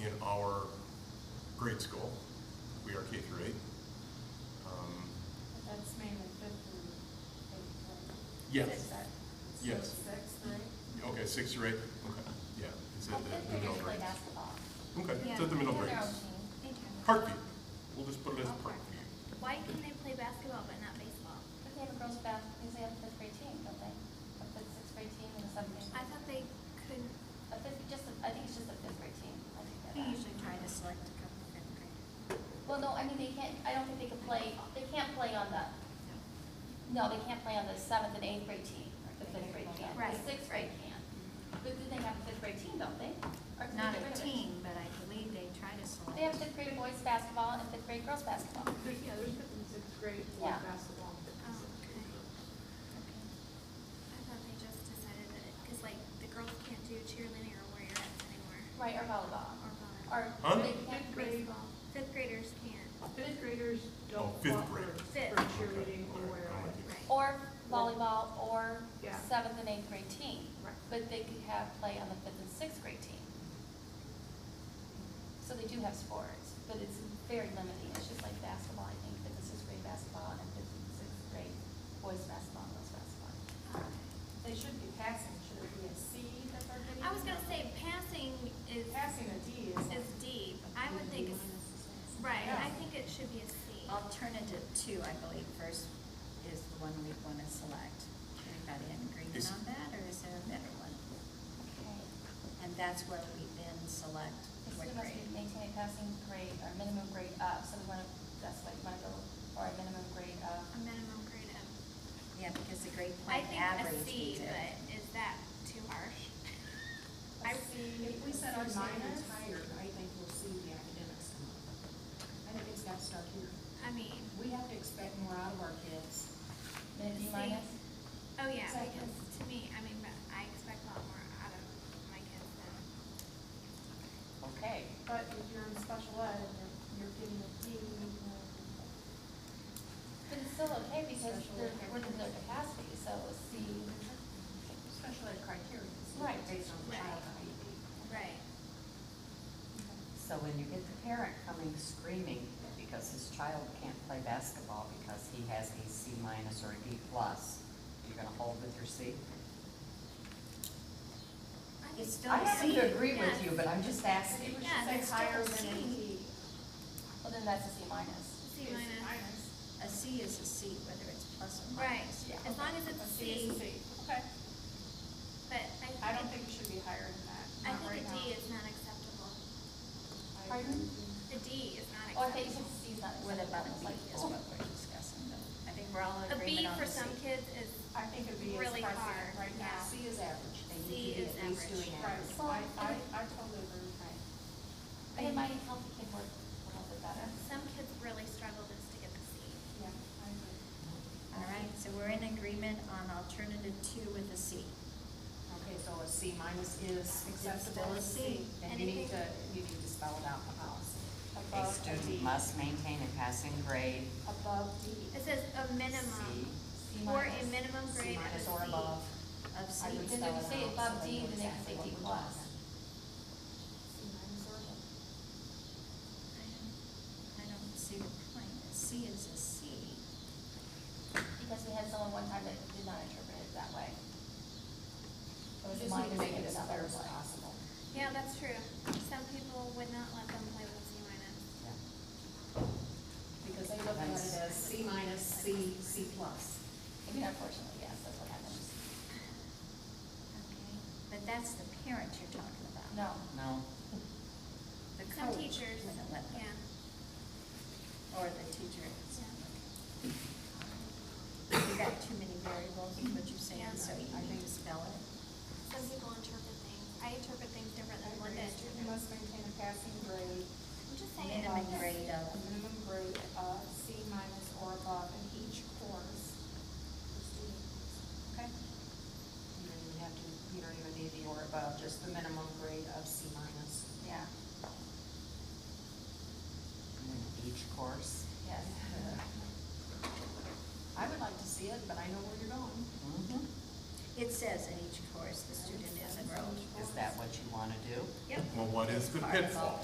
in our grade school. We are K through eight. Um, But That's mainly fifth and eighth, right? Yes. Sixth, right? Yes. Sixth, ninth? Okay, six through eight, okay, yeah, it's I at the think the they're middle gonna play grades. basketball. Okay, it's at the middle They're their grades. own team. They can. Parkview, we'll just put it as Parkview. Why can they play basketball but not baseball? But they have a girls' bath, because they have a fifth grade team, don't they? A fifth, sixth grade team and something. I thought they couldn't. A fifth, just, a- I think it's just a fifth grade team. I think that. We usually try to select a couple of fifth graders. Well, no, I mean, they can't, I don't think they can play, they can't play on the, no, they can't play on the seventh and eighth grade team. The fifth grade can. Right. The sixth grade can. But then they have a fifth grade team, don't they? Or can they Not get rid of a it? team, but I believe they try to select. They have fifth grade boys basketball and fifth grade girls basketball. There's, yeah, there's fifth and sixth grade for Yeah. basketball. fifth and Oh, sixth grade. okay. I thought they just decided that it, because like the girls can't do cheerleading or warriorettes anymore. Right, or volleyball, Or volleyball. or Huh? they can't, Fifth grade, Baseball. Fifth graders can't. fifth graders Oh, don't fifth want for, grade. for Fifth. cheerleading or Okay, where all right, I, I'm with Right. or volleyball, or Yeah. seventh and eighth grade team. Right. But they could have play on the fifth and sixth grade team. So they do have sports, but it's very limiting, it's just like basketball, I think, fifth and sixth grade basketball, and fifth and sixth grade boys basketball, and girls basketball. They should be passing, should it be a C that they're getting? I was gonna say passing is Passing a D is. is D. I would think it's right. I think it should be a C. Alternative two, I believe, first is the one we want to select. Everybody in agreement Is- on that, or is there a better one? Okay, And that's where we then select It's what student must be grade. maintaining a passing grade or minimum grade up, so we wanna, that's why you wanna go, or a minimum grade of, A minimum grade of. Yeah, because the grade I point think a average. C, is it. but is that too harsh? I see. If we set our standards higher, I think we'll see the academics come up. I think it's got to start here. I mean, We have to expect more out of our kids. maybe See. minus? oh yeah, Exactly. because to me, I mean, but I expect a lot more out of my kids than. Okay. But if you're in special ed and you're, you're getting a D, uh, But it's still okay because they're, we're in their capacity, so C, Special ed criteria. is Right. Based on the child Right. IEP. Right. So when you get the parent coming screaming because his child can't play basketball because he has a C minus or a D plus, you're gonna hold with your C? It's still I a happen C. to agree with yes. you, but I'm just asking. we Yeah, should say that's higher still a than a C. D. well, then that's a C minus. C It's minus. A C is a C, whether it's plus or Right, minus. Yeah. as long as A it's a C is a C. C, Okay. but I I don't think, think it should be higher than that. I Not think a right D now. is not acceptable. Pardon? A D is not Oh, I thought you said acceptable. C is not What acceptable. about a It's B like, is oh. what we're discussing, though. I think we're all A in B agreement on for the C. some kids is, I think a B is Really pricey hard, right yeah. now. C is average. They C need to be is at least average. doing Right, average. I, I, I totally agree with that. But it might help the kid work a little bit better. some kids really struggle just to get the C. Yeah, I agree. All right, so we're in agreement on alternative two with a C. Okay, so a C minus is still acceptable. a C. Then you need Anything- to, you need to spell it out in the policy. A Above D. student must maintain a passing grade Above D. It says a C. minimum, C or minus. a minimum C grade of a minus C. or above. Of C. I would Because if spell you it say out so above they D, then know they can exactly say what D we're plus. talking about. C minus or above. I don't see the point. A C is a C. Because we had someone one time that did not interpret it that way. It We was just need minus to make and it as another clear as one. possible. Yeah, that's true. Some people would not let them play with C minus. Yeah. Because they look at it as C minus, C, C plus. I mean, unfortunately, yes, that's what happens. Okay. But that's the parent you're talking about. No. No, The Some coach teachers, wouldn't let them. yeah. Or the teacher. is- Yeah. You got too many variables, is what you're Yeah. saying, so you I need think- to spell it. Some people interpret things, I interpret things different than Every Linda student must interprets. maintain a passing grade, I'm just saying. Minimum grade a of, minimum grade of C minus or above in each course. per student. Okay? You don't even have to, you don't even need the or above, just the minimum grade of C minus. Yeah, in each course. yes. I would like to see it, but I know where you're going. Mhm. it says in each course, the student is enrolled. Is that what you wanna do? Yep. Well, what is the All right, pitfall?